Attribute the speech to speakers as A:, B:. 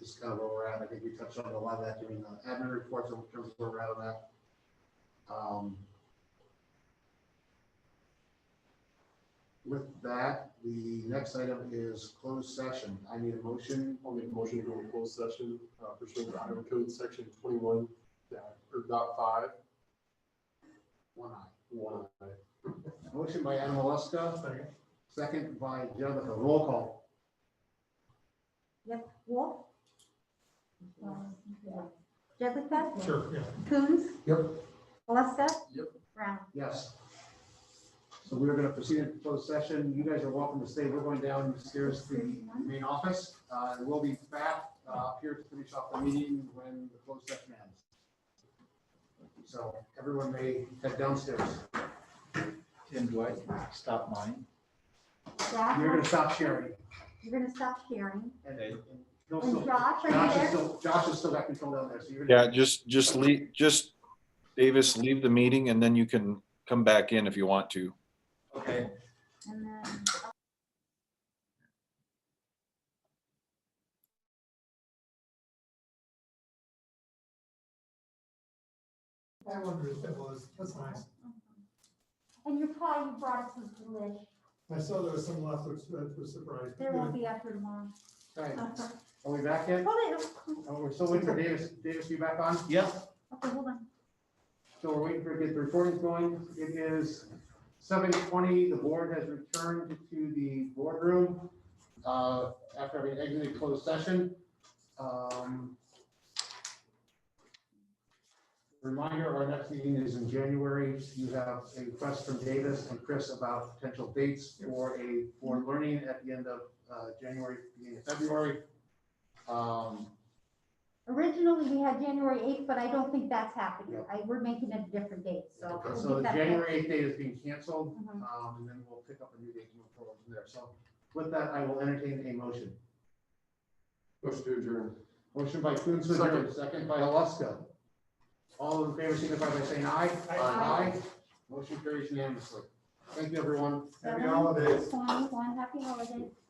A: is kind of where we're at. I think we touched on a lot of that during the admin reports in terms of where we're at on that. Um, With that, the next item is closed session. I need a motion.
B: I'll make a motion to go into closed session uh, pursuant to Iowa Code Section twenty-one, dot- or dot five,
A: One eye.
B: one. I.
A: Motion by Anamoska, second by Jennifer. Roll call.
C: Yep, Wolf? Uh, Jessica?
D: Sure, yeah.
C: Coons?
B: Yep.
C: Alaska?
B: Yep.
C: Brown?
A: Yes. So we're going to proceed in closed session. You guys are welcome to stay. We're going downstairs to the main office. Uh, We'll be back uh, up here to finish off the meeting when the closed session ends. So everyone may head downstairs.
E: Tim, do I stop mine?
C: Josh,
A: You're going to stop sharing.
C: you're gonna stop sharing.
A: And
E: Okay.
A: he'll
C: And
A: still-
C: Josh, are you
A: Josh is
C: there?
A: still, Josh is still got control down there. So you're
F: Yeah, just, just leave, just, Davis, leave the meeting and then you can come back in if you want to.
E: Okay.
C: And then.
D: I wondered if it was, that's nice.
C: Mm-hmm. And your pie you brought us was delish.
D: I saw there was some left, which that was surprised.
C: There won't be after tomorrow.
A: Right.
C: Okay,
A: Are we back yet?
C: hold it.
A: Oh, We're still waiting for Davis. Davis, you back on?
E: Yep.
C: Okay, hold on.
A: So we're waiting for, get the recordings going. It is seven twenty. The board has returned to the boardroom uh, after having exited closed session. Um, Reminder, our next meeting is in January. You have a request from Davis and Chris about potential dates for a board learning at the end of uh, January, beginning of February. Um,
C: Originally, we had January eighth, but I don't think that's happening.
A: No.
C: I, we're making it a different date, so. we'll
A: So
C: get
A: the
C: that back.
A: January eighth date is being canceled.
C: Mhm.
A: Um, and then we'll pick up a new date and move forward from there. So with that, I will entertain a motion.
B: Motion to adjourn.
A: Motion by Coons, to adjourn, second by Alaska. All in favor, signify by saying aye.
C: Aye.
A: Motion carries unanimously. Thank you, everyone.
D: Happy holidays.
C: Twenty-one, happy holidays.